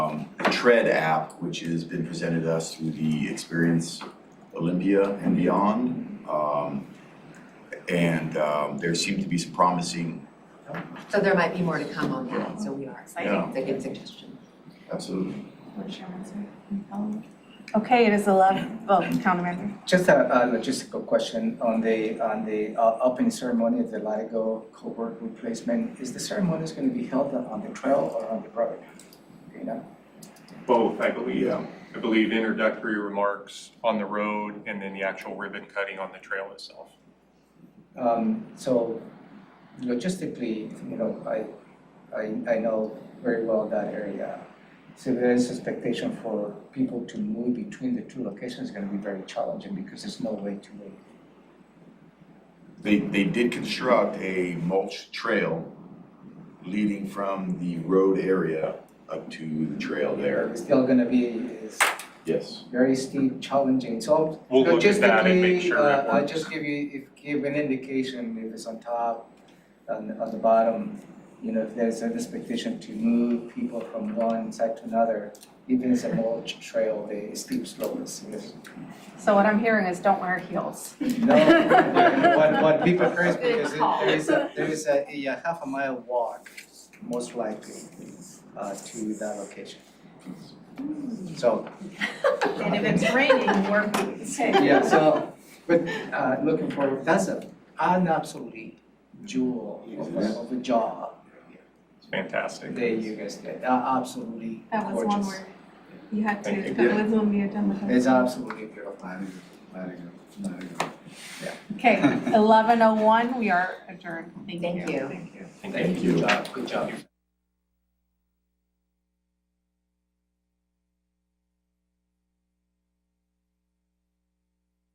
Um, Tread app, which has been presented to us through the Experience Olympia and beyond. Um, and, um, there seem to be some promising, So there might be more to come on that, so we are Yeah. excited, it's a good suggestion. absolutely. Board Chairman, sorry, any follow-up? Okay, it is eleven, well, county member. Just a a logistical question on the, on the uh, opening ceremony of the Latigo cohort replacement. Is the ceremony is gonna be held on the trail or on the road? You know, Both, I believe. um, I believe introductory remarks on the road and then the actual ribbon cutting on the trail itself. um, so logistically, you know, I, I, I know very well that area. So there is expectation for people to move between the two locations is gonna be very challenging because there's no way to wait. They, they did construct a mulch trail leading from the road area up to the trail there. It's still gonna be, it's Yes. very steep, challenging, so We'll look at that and make sure it Logistically, uh, I'll works. just give you, if, give an indication if it's on top, on, on the bottom, you know, if there's an expectation to move people from one side to another, even as a mulch trail, the steep slope is, is, So what I'm hearing is don't wear heels. no, what, what people curse Good because it- call. there is a, there is a, a half a mile walk, most likely, uh, to that location. So, And if it's raining, we're, okay. Yeah, so, but uh looking forward, that's a an absolutely jewel of a of a job It's fantastic. that you guys did, Uh, absolutely gorgeous. That was one word. You had Thank to, you. that was when we had done the. It's absolutely beautiful. Okay, eleven oh one, we are adjourned. Thank you. Thank you. Thank you, good job, good job.